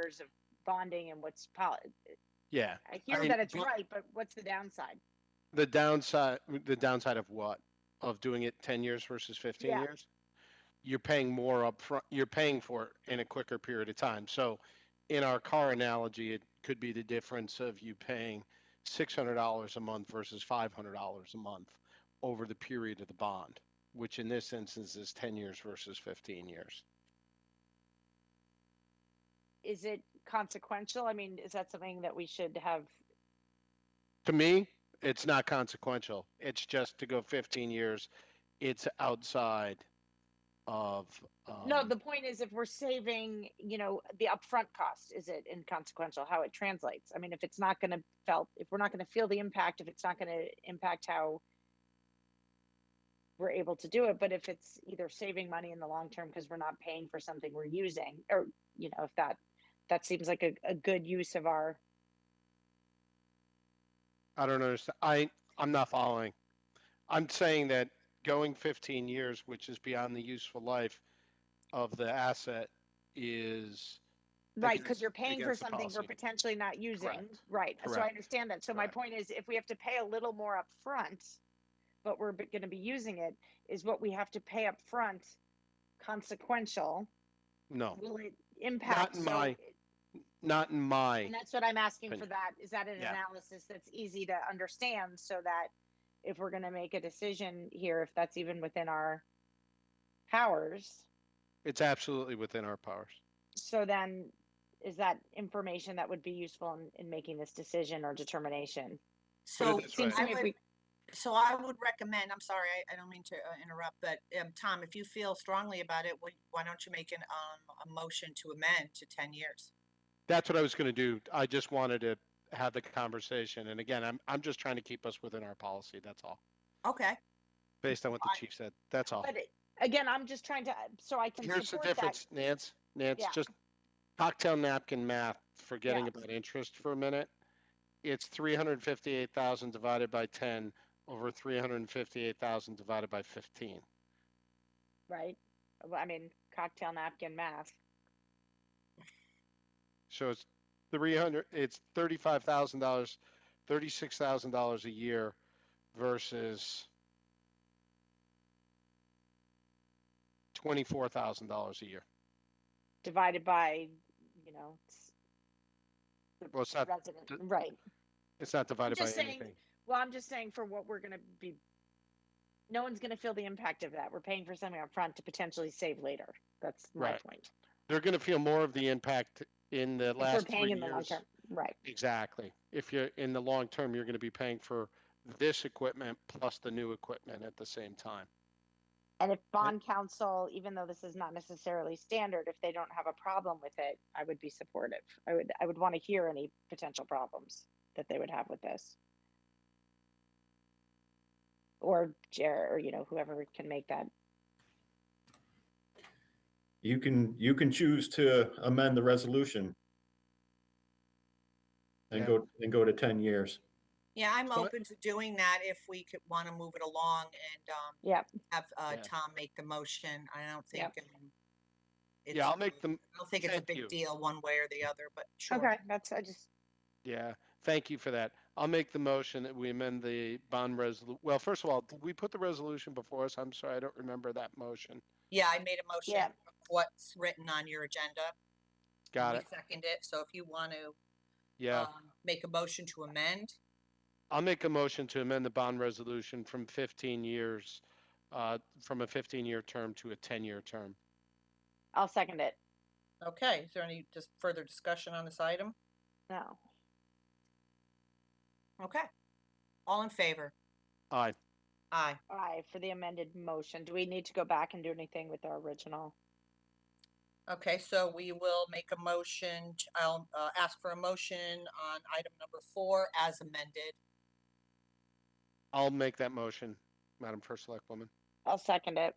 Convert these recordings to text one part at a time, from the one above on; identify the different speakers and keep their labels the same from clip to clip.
Speaker 1: years of bonding and what's poli-
Speaker 2: Yeah,
Speaker 1: I hear
Speaker 2: mean,
Speaker 1: that it's
Speaker 2: bond-
Speaker 1: right, but what's the downside?
Speaker 2: the downside, the downside of what? Of doing it ten years versus fifteen
Speaker 1: Yeah.
Speaker 2: years? You're paying more upfront, you're paying for it in a quicker period of time. So in our car analogy, it could be the difference of you paying six hundred dollars a month versus five hundred dollars a month over the period of the bond, which in this instance is ten years versus fifteen years.
Speaker 1: Is it consequential? I mean, is that something that we should have?
Speaker 2: to me, it's not consequential. It's just to go 15 years. It's outside of. Um,
Speaker 1: No, the point is if we're saving, you know, the upfront cost, is it inconsequential how it translates? I mean, if it's not going to felt, if we're not going to feel the impact, if it's not going to impact how we're able to do it, but if it's either saving money in the long term because we're not paying for something we're using, or you know, if that that seems like a, a good use of our
Speaker 2: I don't understand. I I'm not following. I'm saying that going 15 years, which is beyond the useful life of the asset, is
Speaker 1: Right,
Speaker 2: against-
Speaker 1: because you're paying for
Speaker 2: against the
Speaker 1: something we're
Speaker 2: policy.
Speaker 1: potentially not using,
Speaker 2: Correct.
Speaker 1: right, so I
Speaker 2: Correct.
Speaker 1: understand that, so my
Speaker 2: Correct.
Speaker 1: point is, if we have to pay a little more upfront, but we're b- gonna be using it, is what we have to pay upfront consequential,
Speaker 2: no,
Speaker 1: will it impact?
Speaker 2: in
Speaker 1: So-
Speaker 2: my- not in my.
Speaker 1: And that's what I'm asking for
Speaker 2: opinion.
Speaker 1: that, is that an
Speaker 2: Yeah.
Speaker 1: analysis that's easy to understand, so that if we're gonna make a decision here, if that's even within our powers,
Speaker 2: It's absolutely within our powers.
Speaker 1: So then, is that information that would be useful in, in making this decision or determination?
Speaker 2: Put it
Speaker 3: So
Speaker 2: this
Speaker 1: Seems to
Speaker 3: I
Speaker 1: me if
Speaker 3: would,
Speaker 1: we,
Speaker 3: so I would recommend, I'm sorry, I, I don't mean to uh, interrupt, but, um, Tom, if you feel strongly about it, why- why don't you make an, um, a motion to amend to ten years?
Speaker 2: That's what I was going to do. I just wanted to have the conversation. And again, I'm I'm just trying to keep us within our policy. That's all.
Speaker 3: Okay,
Speaker 2: Based on what the
Speaker 3: I-
Speaker 2: chief said. That's all.
Speaker 1: but it- again, I'm just trying to, so I can
Speaker 2: Here's the
Speaker 1: support that.
Speaker 2: difference, Nance, Nance,
Speaker 1: Yeah.
Speaker 2: just cocktail napkin math, forgetting
Speaker 1: Yeah.
Speaker 2: about interest for a minute. It's three hundred and fifty-eight thousand divided by ten over three hundred and fifty-eight thousand divided by fifteen.
Speaker 1: Right? Well, I mean, cocktail napkin math.
Speaker 2: So it's three hundred, it's thirty-five thousand dollars, thirty-six thousand dollars a year versus twenty-four thousand dollars a year.
Speaker 1: divided by, you know, s-
Speaker 2: Well, it's not,
Speaker 1: resident,
Speaker 2: Uh, d-
Speaker 1: right?
Speaker 2: it's not divided by
Speaker 1: just saying-
Speaker 2: anything.
Speaker 1: Well, I'm just saying for what we're gonna be, no one's gonna feel the impact of that. We're paying for something upfront to potentially save later. That's my
Speaker 2: Right.
Speaker 1: point.
Speaker 2: They're gonna feel more of the impact in the
Speaker 1: If we're
Speaker 2: last
Speaker 1: paying
Speaker 2: three
Speaker 1: in the long
Speaker 2: years.
Speaker 1: term, right?
Speaker 2: Exactly. If you're in the long term, you're going to be paying for this equipment plus the new equipment at the same time.
Speaker 1: And if bond counsel, even though this is not necessarily standard, if they don't have a problem with it, I would be supportive. I would, I would want to hear any potential problems that they would have with this. Or Jer, or you know, whoever can make that.
Speaker 4: You can, you can choose to amend the resolution.
Speaker 2: Yeah.
Speaker 4: And go, and go to ten years.
Speaker 3: yeah, I'm
Speaker 2: So-
Speaker 3: open to doing that if we could want to move it along and, um,
Speaker 1: Yep.
Speaker 3: have, uh,
Speaker 2: Yeah.
Speaker 3: Tom make the motion. I don't think.
Speaker 1: Yep.
Speaker 3: um, it's,
Speaker 2: Yeah, I'll make
Speaker 3: uh,
Speaker 2: them.
Speaker 3: I don't think it's a
Speaker 2: thank you.
Speaker 3: big deal one way or the other, but sure.
Speaker 1: Okay, that's, I just,
Speaker 2: Yeah, thank you for that. I'll make the motion that we amend the bond resolu, well, first of all, did we put the resolution before us? I'm sorry, I don't remember that motion.
Speaker 3: Yeah, I made a motion
Speaker 1: Yeah.
Speaker 3: of what's written on your agenda. and
Speaker 2: Got
Speaker 3: you
Speaker 2: it.
Speaker 3: Second it, so if you want to,
Speaker 2: Yeah,
Speaker 3: um, make a motion to amend.
Speaker 2: I'll make a motion to amend the bond resolution from 15 years, uh, from a 15-year term to a 10-year term.
Speaker 1: I'll second it.
Speaker 3: Okay, is there any just further discussion on this item?
Speaker 1: No.
Speaker 3: Okay. All in favor?
Speaker 2: Aye.
Speaker 3: Aye.
Speaker 1: Aye, for the amended motion. Do we need to go back and do anything with our original?
Speaker 3: Okay, so we will make a motion, t- I'll uh, ask for a motion on item number four as amended.
Speaker 2: I'll make that motion, Madam First Select Woman.
Speaker 1: I'll second it.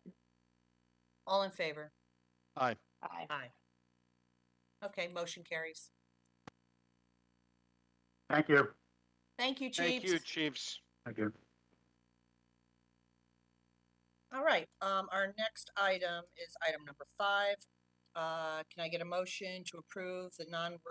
Speaker 3: All in favor?
Speaker 1: Aye.
Speaker 3: Aye. Okay, motion carries.
Speaker 4: Thank you.
Speaker 3: Thank you,
Speaker 2: Thank you,
Speaker 3: Chiefs.
Speaker 2: Chiefs.
Speaker 4: Thank you.
Speaker 3: All right, um, our next item is item number five. Uh, can I get a motion to approve the non-work